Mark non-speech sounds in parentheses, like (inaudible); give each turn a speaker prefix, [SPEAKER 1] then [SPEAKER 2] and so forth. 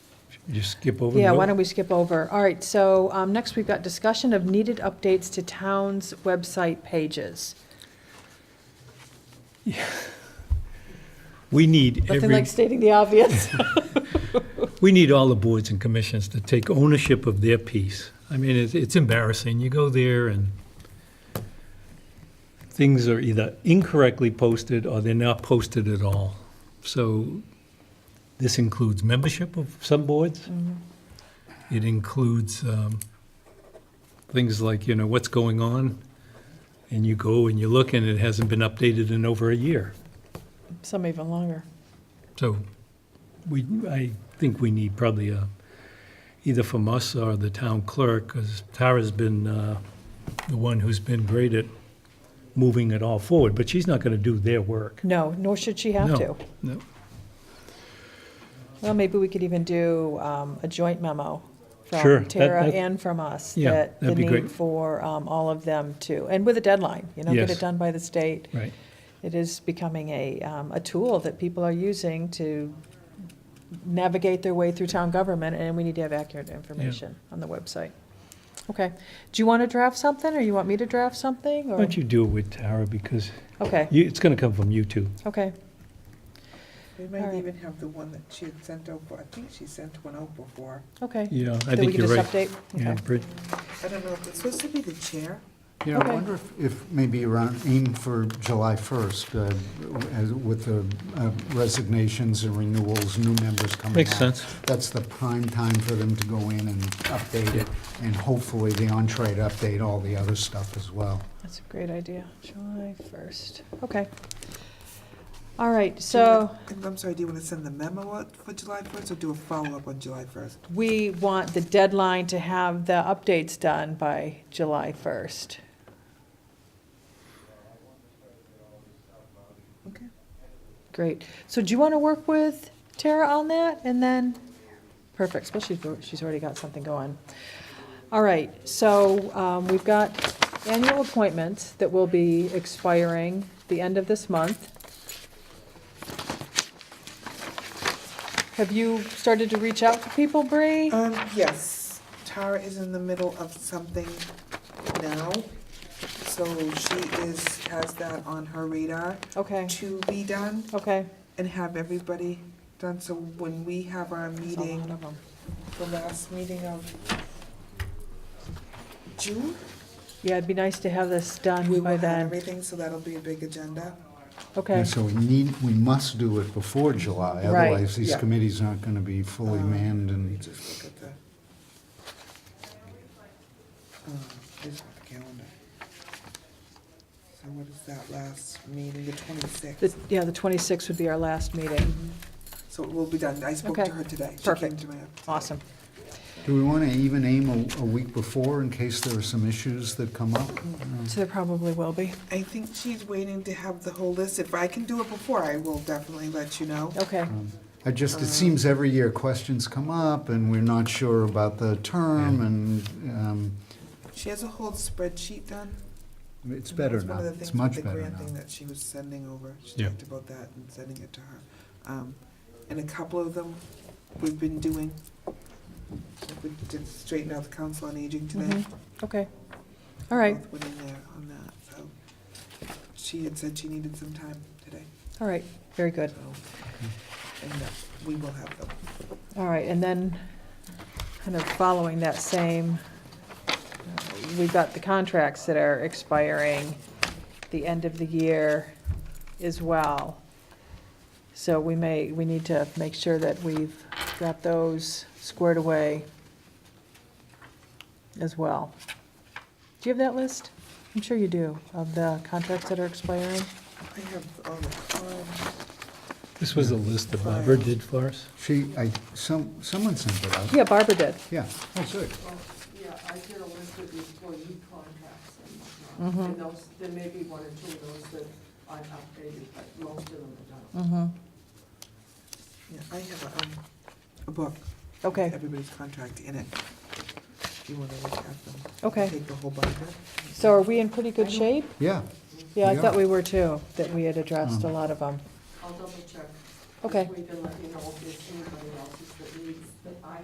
[SPEAKER 1] Just skip over.
[SPEAKER 2] Yeah, why don't we skip over? All right, so um, next we've got discussion of needed updates to towns' website pages.
[SPEAKER 1] We need
[SPEAKER 2] Nothing like
[SPEAKER 1] every,
[SPEAKER 2] stating
[SPEAKER 1] (laughs)
[SPEAKER 2] the obvious.
[SPEAKER 1] we need all the boards and commissions to take ownership of their piece. I mean, it's, it's embarrassing. You go there and things are either incorrectly posted or they're not posted at all. So this includes membership of some boards.
[SPEAKER 2] Mm-hmm.
[SPEAKER 1] It includes um, things like, you know, what's going on? And you go and you look and it hasn't been updated in over a year.
[SPEAKER 2] Some even longer.
[SPEAKER 1] So we, I think we need probably a, either from us or the town clerk, because Tara's been uh, the one who's been great at moving it all forward, but she's not going to do their work.
[SPEAKER 2] No, nor should she have
[SPEAKER 1] No,
[SPEAKER 2] to.
[SPEAKER 1] no.
[SPEAKER 2] Well, maybe we could even do um, a joint memo
[SPEAKER 1] Sure,
[SPEAKER 2] from
[SPEAKER 1] that-
[SPEAKER 2] Tara
[SPEAKER 1] that-
[SPEAKER 2] and from us.
[SPEAKER 1] Yeah,
[SPEAKER 2] that
[SPEAKER 1] that'd be
[SPEAKER 2] The need
[SPEAKER 1] great.
[SPEAKER 2] for um, all of them to, and with a deadline, you know, get
[SPEAKER 1] Yes.
[SPEAKER 2] it done by the state.
[SPEAKER 1] Right.
[SPEAKER 2] It is becoming a, um, a tool that people are using to navigate their way through town government, and we need to have accurate information on the website. Okay. Do you want to draft something, or you want me to draft something,
[SPEAKER 1] Why
[SPEAKER 2] or?
[SPEAKER 1] don't you do it with Tara, because
[SPEAKER 2] Okay,
[SPEAKER 1] you, it's going to come from you two.
[SPEAKER 2] okay.
[SPEAKER 3] They
[SPEAKER 2] All
[SPEAKER 3] might
[SPEAKER 2] right.
[SPEAKER 3] even have the one that she had sent out, for- I think she sent one out before.
[SPEAKER 2] Okay.
[SPEAKER 1] Yeah, I
[SPEAKER 2] That we
[SPEAKER 1] think
[SPEAKER 2] can
[SPEAKER 1] you're
[SPEAKER 2] just
[SPEAKER 1] right.
[SPEAKER 2] update?
[SPEAKER 1] Yeah,
[SPEAKER 2] Okay.
[SPEAKER 1] Brid-
[SPEAKER 3] I don't know, if it's supposed to be the chair?
[SPEAKER 4] Yeah, I
[SPEAKER 2] Okay.
[SPEAKER 4] wonder if, if maybe around, aim for July 1st, uh, as- with the uh, resignations and renewals, new members coming out.
[SPEAKER 1] Makes sense.
[SPEAKER 4] That's the prime time for them to go in and update it, and hopefully the entree to update all the other stuff as well.
[SPEAKER 2] That's a great idea. July 1st. Okay. All right, so
[SPEAKER 3] And I'm sorry, do you want to send the memo out for July 1st or do a follow-up on July 1st?
[SPEAKER 2] we want the deadline to have the updates done by July 1st.
[SPEAKER 3] Okay.
[SPEAKER 2] Great. So do you want to work with Tara on that and then? Perfect, especially if she's already got something going. All right, so um, we've got annual appointments that will be expiring the end of this month. Have you started to reach out to people, Bree?
[SPEAKER 3] Um, yes, Tara is in the middle of something now, so she is, has that on her radar
[SPEAKER 2] Okay,
[SPEAKER 3] to be done
[SPEAKER 2] okay.
[SPEAKER 3] and have everybody done, so when we have our
[SPEAKER 2] That's a lot
[SPEAKER 3] meeting,
[SPEAKER 2] of 'em.
[SPEAKER 3] the last meeting of June,
[SPEAKER 2] Yeah, it'd be nice to have this
[SPEAKER 3] we
[SPEAKER 2] done by
[SPEAKER 3] will have
[SPEAKER 2] then.
[SPEAKER 3] everything, so that'll be a big agenda.
[SPEAKER 2] Okay,
[SPEAKER 4] And so we need, we must do it before
[SPEAKER 2] Right.
[SPEAKER 4] July,
[SPEAKER 2] Uh,
[SPEAKER 4] otherwise these
[SPEAKER 3] Yeah.
[SPEAKER 4] committees aren't going to be fully
[SPEAKER 3] Um,
[SPEAKER 4] manned
[SPEAKER 3] Let me
[SPEAKER 4] and,
[SPEAKER 3] just look at the, um, this is the calendar. So what is that last meeting, the
[SPEAKER 2] The-
[SPEAKER 3] twenty-sixth? Mm-hmm.
[SPEAKER 2] yeah, the 26th would be our last meeting.
[SPEAKER 3] So it will be done. I spoke
[SPEAKER 2] Okay.
[SPEAKER 3] to her today. She came
[SPEAKER 2] Perfect.
[SPEAKER 3] to my.
[SPEAKER 2] Awesome.
[SPEAKER 4] do we want to even aim a, a week before in case there are some issues that come up?
[SPEAKER 2] So there probably will be.
[SPEAKER 3] I think she's waiting to have the whole list. If I can do it before, I will definitely let you know.
[SPEAKER 2] Okay,
[SPEAKER 4] I just, it seems every year questions come up and we're not sure about the term and um,
[SPEAKER 3] She has a whole spreadsheet done.
[SPEAKER 4] it's
[SPEAKER 3] and
[SPEAKER 4] better
[SPEAKER 3] that's one of
[SPEAKER 4] now.
[SPEAKER 3] the
[SPEAKER 4] It's
[SPEAKER 3] things with
[SPEAKER 4] much
[SPEAKER 3] the
[SPEAKER 4] better
[SPEAKER 3] grant Thing
[SPEAKER 4] now.
[SPEAKER 3] that she was sending over. She
[SPEAKER 1] Yeah.
[SPEAKER 3] talked about that and sending it to her. Um, and a couple of them we've been doing. Like We did straighten out the council on aging today.
[SPEAKER 4] Mm-hmm.
[SPEAKER 2] Mhm. okay. All right,
[SPEAKER 3] Both went in there on that, so. She had said she needed some time today,
[SPEAKER 2] all right, very good.
[SPEAKER 3] so, and uh, we will have them.
[SPEAKER 2] All right, and then, kind of following that same, uh, we've got the contracts that are expiring the end of the year as well. So we may, we need to make sure that we've got those squared away as well. Do you have that list? I'm sure you do, of the contracts that are expiring.
[SPEAKER 3] I have all the forms.
[SPEAKER 1] This was a list that Barbara did for us.
[SPEAKER 4] She, I, some, someone sent it out.
[SPEAKER 2] Yeah, Barbara did.
[SPEAKER 4] Yeah, that's it.
[SPEAKER 5] Yeah, I did a list of the employee contracts and whatnot, and those, there may be one or two of those that aren't updated, but most of them are done.
[SPEAKER 2] Mm-hmm.
[SPEAKER 3] Yeah, I have a, um, a book. with
[SPEAKER 2] Okay,
[SPEAKER 3] Everybody's contract in it. If you wanna look at them.
[SPEAKER 2] Okay.
[SPEAKER 3] Take the whole binder.
[SPEAKER 2] so are we in pretty good shape?
[SPEAKER 4] Yeah.
[SPEAKER 2] Yeah, I thought
[SPEAKER 4] Yeah.
[SPEAKER 2] we were too, that we had addressed a lot of them.
[SPEAKER 5] I'll double check.
[SPEAKER 2] Okay.
[SPEAKER 5] This week and let you know if there's anybody else that needs, that I